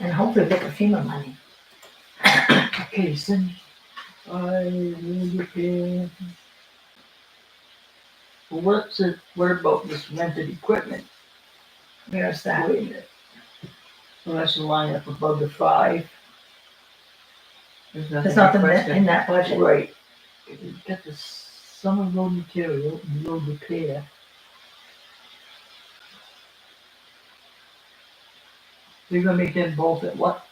and hopefully get the FEMA money. Okay, send, I need to pay. Well, What's it, what about this rented equipment? There's that. Wait a minute. So that's a line up above the five. There's nothing. There's nothing in that- requested. in that budget. Right. We've Got the summer road material, and road repair. You're gonna make them both at what?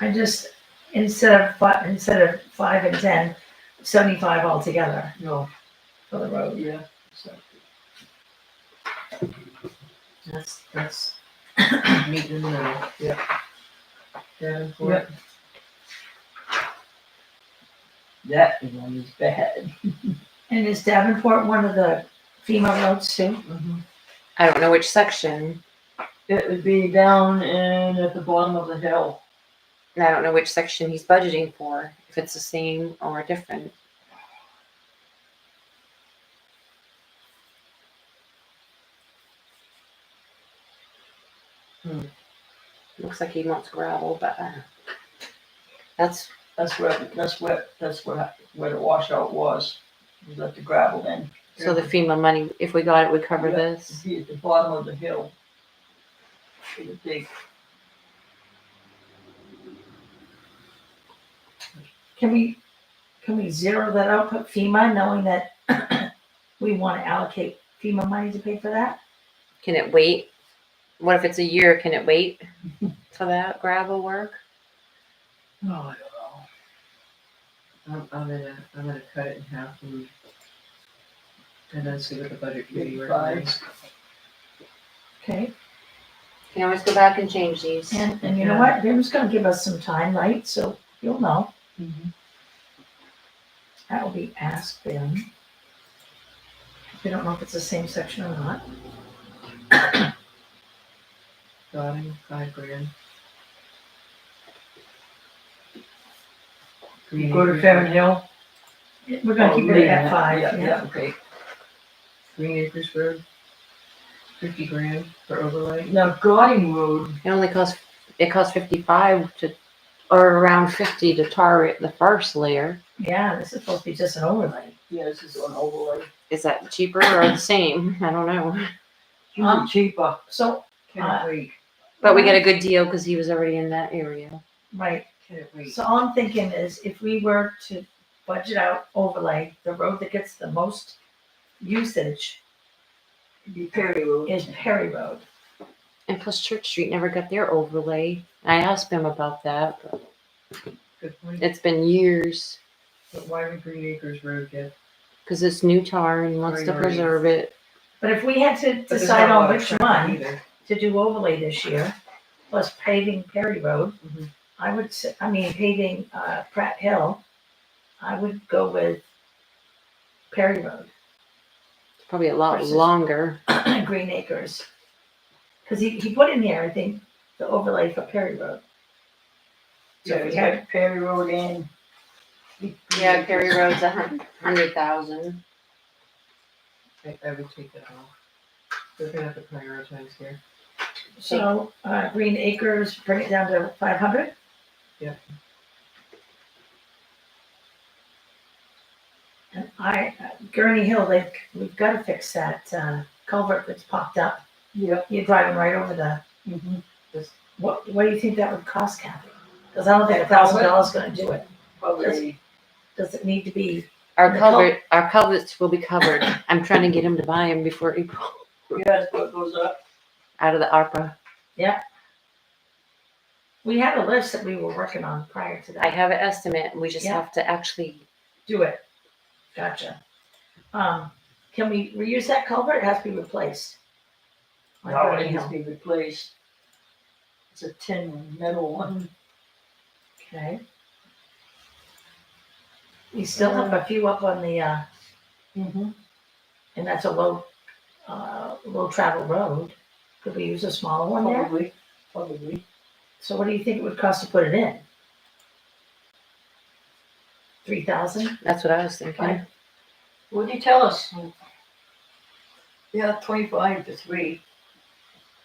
I just, instead of fi- instead of five and ten, seventy-five altogether No, for the road. yeah, so. That's, that's meat in the middle. Yep. That one is bad. And is Davenport one of the FEMA roads too? I don't know which section. It would be down and at the bottom of the hill. And I don't know which section he's budgeting for, if it's the same or different. Hmm. Looks like he wants gravel, but uh, that's, That's where, that's where, that's where, where the washout was. We let the gravel in. so the FEMA money, if we got it, would cover Yeah. this. Be at the bottom of the hill. It would take Can we, can we zero that out, put FEMA, knowing that we want to allocate FEMA money to pay for that? Can it wait? What if it's a year? Can it wait for that gravel work? No, I don't Oh, I'm, I'm gonna, I'm gonna cut it in half and, and then see what the budget committee know. Five. recommends. Okay, Can always go back and change these. and, and you know what, they're just gonna give us some time, right, so you'll know, Mm-hmm. Mhm. that will be asked then. We don't know if it's the same section or not, Dotting, five grand. You go to Farron Hill. we're Oh, gonna keep it at five, Yeah, yeah. yeah, okay. Green Acres Road, fifty grand for overlay. Now, Gauding Road, It only costs, it costs fifty-five to, or around fifty to tar it the first layer. Yeah, this is supposed to be just an overlay. yeah, this is an overlay. Is that cheaper or the same? I don't know. Huh? It's cheaper. So, uh, Can it wait, But we get a good deal because he was already in that area. right, can it wait? so all I'm thinking is if we were to budget out overlay, the road that gets the most usage Be Perry Road. is Perry Road. And plus Church Street never got their overlay. I asked him about that. but Good point. It's been years But why would Green Acres Road get? because it's new tar and he wants to Priorities. preserve it. But if we had to but there's decide not a lot on of which traffic one either. to do overlay this year, plus paving Perry Road, Mhm. I would, s- I mean paving, uh, Pratt Hill, I would go with Perry Road, It's probably a lot Versus- longer. Green Acres. Cause he, he put in there, I think, the overlay for Perry Road. So Yeah, if we we had had Perry Road in. Yeah, Perry Road's a hundred thousand. I, I would take that off. We're gonna have to prioritize here. So, uh, Green Acres, bring it down to five hundred? Yep. And I, uh, Gurney Hill, they, we've gotta fix that, uh, culvert that's popped up. Yep. You're driving right over the, Mhm. what, what do you think that would cost, Kathy? Cause I don't think a thousand dollars is gonna do it. Probably. Does it need to be, Our The cul- culvert, our culverts will be covered. I'm trying to get him to buy them before April, Yeah, that's what goes up. out of the ARPA. we had a list that we were working on prior to I that. have an estimate. We just Yeah. have to actually Do it. Gotcha. Um, can we reuse that culvert? It has to be replaced. On Now Gurney it needs Hill. to be replaced. It's a tin metal one. Okay. We still have a few up on the, uh, Mm-hmm. and that's a low, uh, low travel road. Could we use a smaller one there? Probably, probably. So what do you think it would cost to put it in? Three thousand? That's what I was thinking. Right. Mm. What'd you tell us? Yeah, twenty-five to three.